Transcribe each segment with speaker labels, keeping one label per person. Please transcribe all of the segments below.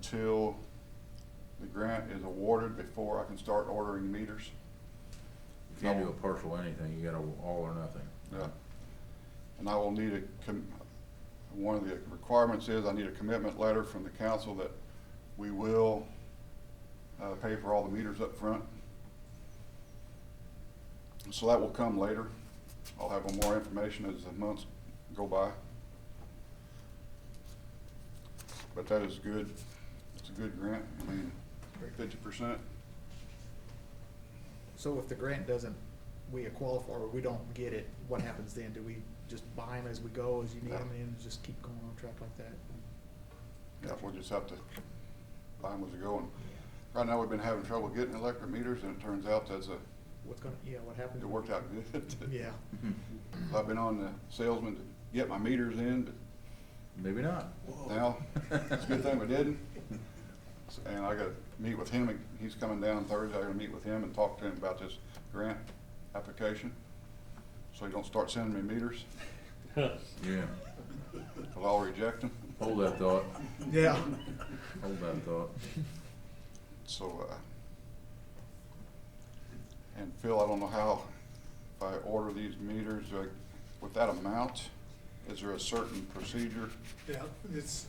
Speaker 1: until the grant is awarded before I can start ordering meters.
Speaker 2: You can't do a partial anything, you gotta all or nothing.
Speaker 1: Yeah. Uh, And I will need a, com- one of the requirements is I need a commitment letter from the council that we will uh, pay for all the meters up front. So that will come later. I'll have more information as the months go by. But that is good. It's a good grant. I mean, fifty percent.
Speaker 3: So if the grant doesn't, we qualify, or we don't get it, what happens then? Do we just buy them as we go, as you need them, and just keep going on track like that?
Speaker 1: Yeah, we'll just have to buy them as we go. And Right now, we've been having trouble getting electric meters, and it turns out that's a,
Speaker 3: What's gonna, yeah, what happens?
Speaker 1: it worked out good.
Speaker 3: Yeah,
Speaker 1: I've been on the salesman to get my meters in, but
Speaker 2: Maybe not.
Speaker 1: now, it's a good thing we didn't. So- And I gotta meet with him, and he's coming down Thursday, I'm gonna meet with him and talk to him about this grant application. So he don't start sending me meters,
Speaker 2: Yeah,
Speaker 1: i I'll reject them.
Speaker 2: hold that thought,
Speaker 3: yeah.
Speaker 2: hold that thought.
Speaker 1: So, uh, and Phil, I don't know how, if I order these meters, uh, with that amount, is there a certain procedure?
Speaker 4: Yeah, it's,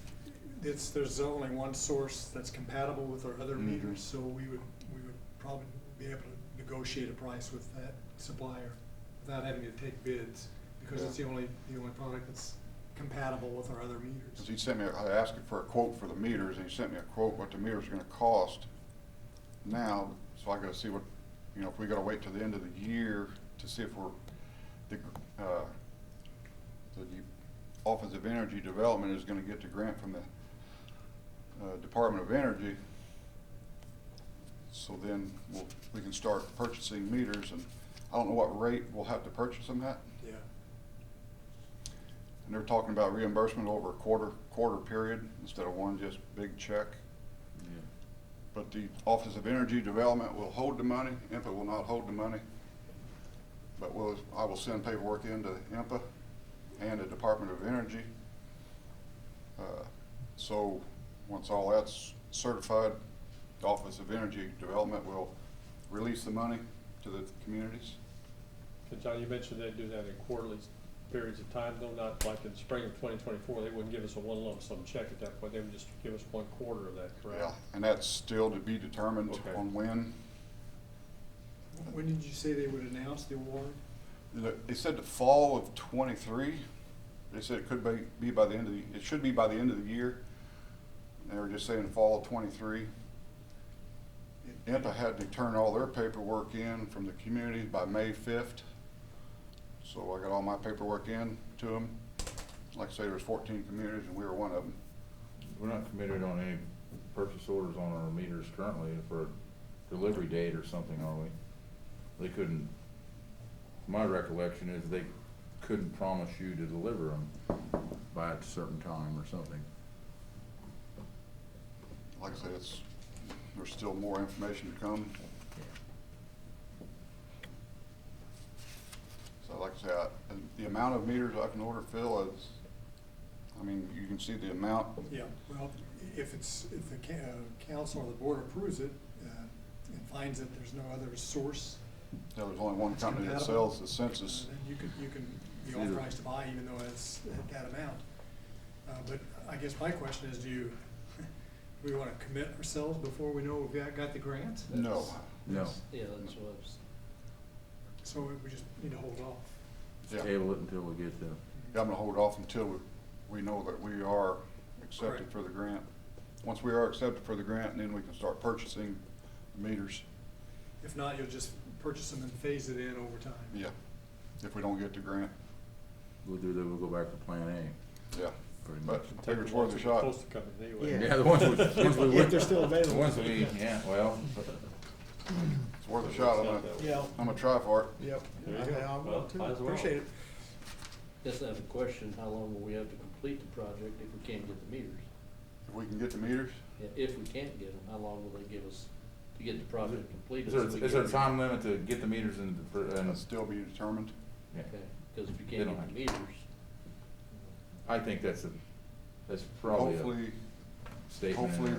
Speaker 4: it's, there's only one source that's compatible with our other
Speaker 1: Mhm.
Speaker 4: meters, so we would, we would probably be able to negotiate a price with that supplier without having to take bids, because it's
Speaker 1: Yeah.
Speaker 4: the only, the only product that's compatible with our other
Speaker 1: Because
Speaker 4: meters.
Speaker 1: he sent me, I asked him for a quote for the meters, and he sent me a quote what the meters are gonna cost now, so I gotta see what, you know, if we gotta wait till the end of the year to see if we're, the, uh, the Office of Energy Development is gonna get the grant from the, uh, Department of Energy. So then, we'll, we can start purchasing meters, and I don't know what rate we'll have to purchase them at.
Speaker 4: Yeah,
Speaker 1: And they're talking about reimbursement over a quarter, quarter period instead of one just big check.
Speaker 2: Yeah.
Speaker 1: But the Office of Energy Development will hold the money, IMPA will not hold the money. But will, I will send paperwork into IMPA and the Department of Energy. Uh, So, once all that's certified, the Office of Energy Development will release the money to the communities.
Speaker 5: And John, you mentioned they do that in quarterly periods of time, though not like in spring of twenty twenty-four, they wouldn't give us a one lump sum check at that point, they would just give us one quarter of that,
Speaker 1: Yeah,
Speaker 5: correct?
Speaker 1: And that's still to be determined
Speaker 5: Okay.
Speaker 1: on when.
Speaker 4: when did you say they would announce the award?
Speaker 1: The- They said the fall of twenty-three. They said it could be, be by the end of the, it should be by the end of the year. They were just saying fall of twenty-three. IMPA had to turn all their paperwork in from the communities by May fifth. So I got all my paperwork in to them. Like I say, there's fourteen communities and we were one of them.
Speaker 2: We're not committed on any purchase orders on our meters currently for a delivery date or something, are we? They couldn't, my recollection is they couldn't promise you to deliver them by a certain time or something.
Speaker 1: Like I say, it's, there's still more information to come. So like I say, I- the amount of meters I can order, Phil, is, I mean, you can see the amount
Speaker 4: Yeah, well, if it's, if the ca- uh, council or the board approves it, uh, and finds that there's no other source,
Speaker 1: There was only one company that
Speaker 4: Compatible?
Speaker 1: sells the census.
Speaker 4: Uh, then You can, you can be
Speaker 2: Either.
Speaker 4: authorized to buy even though it's at that amount. Uh, but I guess my question is, do you, do we wanna commit ourselves before we know we got, got the grant?
Speaker 1: No,
Speaker 2: No,
Speaker 6: Yeah, that's what I was.
Speaker 4: So we- we just need to hold off.
Speaker 1: yeah, I'm
Speaker 2: table it until we get the
Speaker 1: gonna hold off until we, we know that we are accepted
Speaker 4: Correct.
Speaker 1: for the grant. Once we are accepted for the grant, then we can start purchasing meters,
Speaker 4: If not, you'll just purchase them and phase it in over time.
Speaker 1: yeah, if we don't get the grant,
Speaker 2: We'll do that, we'll go back to plan A,
Speaker 1: yeah.
Speaker 2: pretty much.
Speaker 1: But I think it's worth a shot.
Speaker 5: Supposed to come in anyway.
Speaker 3: Yeah.
Speaker 2: Yeah, the ones we, ones we.
Speaker 3: If they're still available.
Speaker 2: The ones we, yeah, well,
Speaker 1: It's worth a shot. I'm gonna,
Speaker 3: Yeah,
Speaker 1: I'm gonna try for it.
Speaker 3: yep.
Speaker 5: There you
Speaker 3: I-
Speaker 5: go.
Speaker 3: I
Speaker 5: Well,
Speaker 3: will too.
Speaker 5: might as well.
Speaker 3: Appreciate it.
Speaker 6: Guess I have a question, how long will we have to complete the project if we can't get the meters?
Speaker 1: If we can get the meters,
Speaker 6: Yeah, If we can't get them, how long will they give us to get the project completed?
Speaker 2: is
Speaker 6: so we
Speaker 2: there, is there a
Speaker 6: get-
Speaker 2: time limit to get the meters in, the fir-
Speaker 1: that'll
Speaker 2: and,
Speaker 1: still be determined.
Speaker 2: yeah.
Speaker 6: Okay, because if you
Speaker 2: They don't
Speaker 6: can't get
Speaker 2: have-
Speaker 6: the meters,
Speaker 2: I think that's a, that's probably
Speaker 1: Hopefully.
Speaker 2: a statement. in
Speaker 1: hopefully
Speaker 2: there.